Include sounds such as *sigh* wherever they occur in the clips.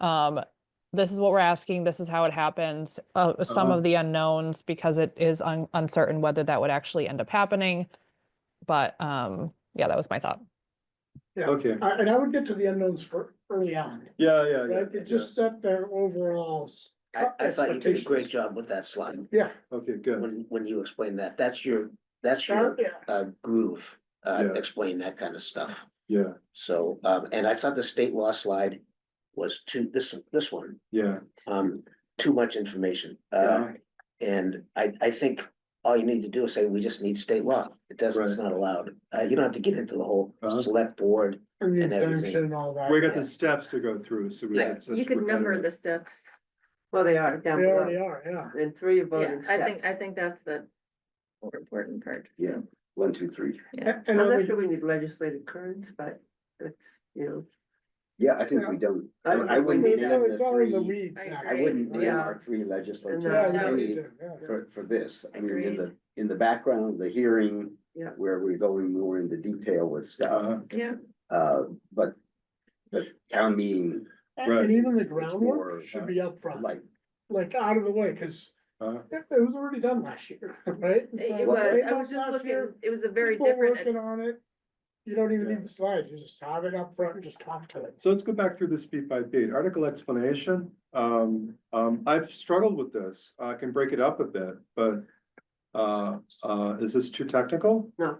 Um, this is what we're asking, this is how it happens, uh, some Uh-huh. of the unknowns, because it is un- uncertain whether that would actually end up happening. But, um, yeah, that was my thought. Yeah. Okay, I- And I would get to the unknowns for early on, yeah, Oh, yeah, yeah. right? yeah. It just set their overall. s- I, I thought you did a great expectations. job with that slide, Yeah, Okay, good. when, when you explained that, that's your, that's sure, your, yeah, uh, groove. Uh, Yeah. explain that kind of stuff, Yeah, so, um, and I thought the state law slide was too, this, this one, yeah, um, too much information. Uh, yeah, and I, I think all you need to do is say, we just need state law, it doesn't, it's Right. not allowed. Uh, you don't have to get into the whole Uh-huh. select board, and the And everything. exemption and all that. we got the steps to go through, so we. Yeah, that's- you that's could what number better- the steps. Well, they are They down already below, are, yeah. and three Yeah, voting I think, steps. I think that's the more important part. Yeah. so, one, two, three. Yeah, A- And I'm I not would, sure we need legislative currents, but it's, you Yeah, I think we don't. I- I I wouldn't it's all, it's all in the weeds. I now, agree. I wouldn't right? name our three And legislatures. then- Yeah, Yeah. no, you do, yeah. for, for this, I mean, in the, Agreed. in the background, the hearing. Yeah. Where we're going more into detail with Uh-huh. stuff, yeah, uh, but, but town meeting, And Right. and even the It's more, groundwork should uh, be upfront, like, like out of the way, cause Uh-huh. it, it was already done last year, *laughs* right? And so it was was, eight I was months just last looking, year, it was a very people Working different, on it, you don't even Yeah. need the slides, you just have it up front and just talk to it. So let's go back through this beat by beat. Article explanation, um, um, I've struggled with this. I can break it up a bit, but. Uh, uh, is this too technical? know.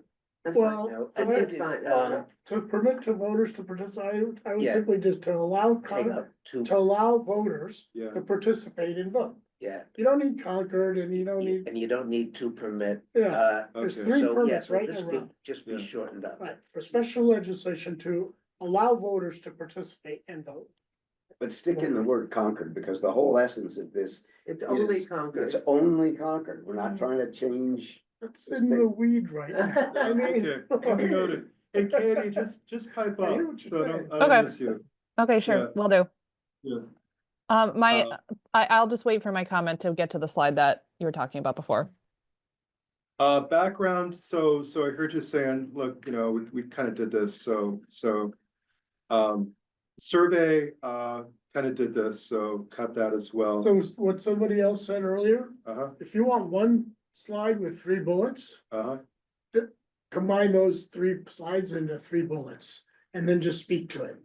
Well, no, I I think think it's fine, Uh, uh, To permit to voters to participate, I would- I would Um, Yeah. simply just to allow, take con- up two, to allow voters Yeah, to participate and vote. yeah, You don't need Concord and you don't need, and you don't need two permit, yeah, uh, there's okay. three so, yeah, permits so right in this a could row. just be Yeah. shortened up. Right, for special legislation to allow voters to participate and vote. But stick in the word Concord, because the whole essence of this, it's only it's Concord. only Concord, we're not Mhm. trying to change. That's in the weed right now. *laughs* I mean. Okay, *laughs* noted. Hey Katie, just, just pipe I up, hear what you're so I don't, saying. I don't Okay. miss you. Okay, sure, sure, will do. Yeah. Um, my, Uh, I, I'll just wait for my comment to get to the slide that you were talking about before. Uh, background, so, so I heard you saying, look, you know, we, we kind of did this, so, so. Um, survey, uh, kind of did this, so cut that as well. So what somebody else said earlier, Uh-huh, if you want one slide with three bullets, uh-huh, combine those three slides into three bullets and then just speak to it.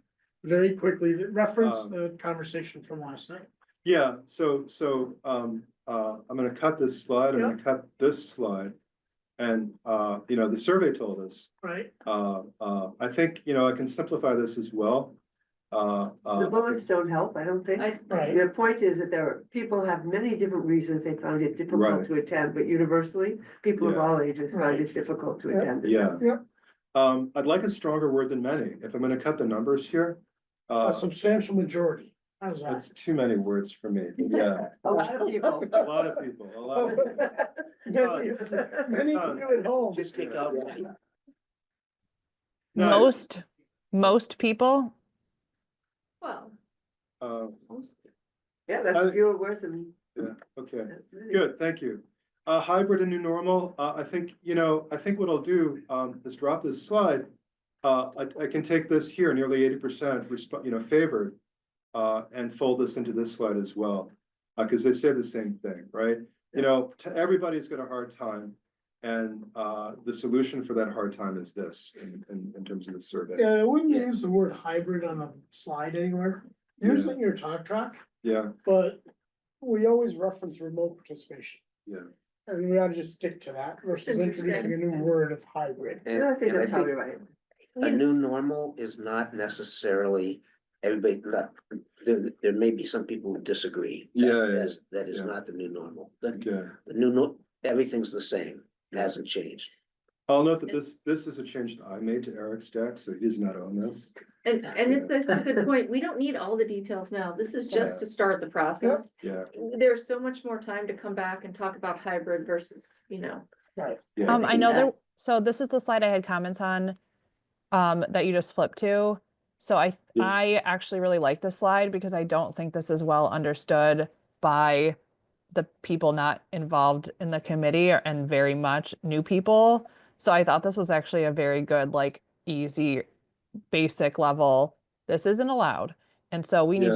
Very quickly, reference Um, the conversation from last night. yeah, so, so, um, uh, I'm gonna cut this slide, I'm gonna cut this slide. And, uh, you know, the survey told us, Right. uh, uh, I think, you know, I can simplify this as well. Uh, The uh, bullets don't help, I don't think. I, Right. Their point is that there are, people have many different reasons they found it Right. difficult to attend, but universally, people of Yeah. all ages Right. find it difficult to Yeah. attend. yeah. Yeah. Um, I'd like a stronger word than many, if I'm gonna cut the numbers here. Uh, A substantial majority. How's that? That's too many words for me, yeah, A lot of people. a lot of people, a lot of, *laughs* people. *laughs* Many many uh, of you at home. Just take out, Nice. Most, most people, well, uh, Yeah, Uh, that's fewer words than. okay, that's many. good, thank you. Uh, hybrid and new normal, uh, I think, you know, I think what I'll do, um, is drop this slide. Uh, I, I can take this here, nearly eighty percent, you know, favored, uh, and fold this into this slide as well. Uh, cause they say the same thing, right? You know, t- everybody's got a hard time, and, uh, the solution for that hard time is this, in, in, in terms of the survey, Yeah, I wouldn't Yeah. use the word hybrid on a slide anywhere, Yeah. usually in your talk track, yeah, but we always reference remote participation. yeah. And we ought to just stick to that versus introducing a new word of hybrid. and, No, I think and I that's think probably right. a you- new normal is not necessarily, everybody, not, there, there may be some people who disagree. that- Yeah, yeah, that's- That is yeah. not the new normal, the, Okay, the new, nor- everything's the same, It hasn't changed. I'll note that this, this is a change that I made to Eric's deck, so he does not own this. and, and it's, that's a good point, we don't need all the details now, this is just to start the process. Yeah. There's so much more time to come back and talk about hybrid versus, you know, Right. um, I know Yeah. there, so this is the slide I had comments on, um, that you just flipped to. So I, Yeah. I actually really like this slide because I don't think this is well understood by the people not involved in the committee or- and very much new people. So I thought this was actually a very good, like, easy, basic level. This isn't allowed. And so we need Yeah. to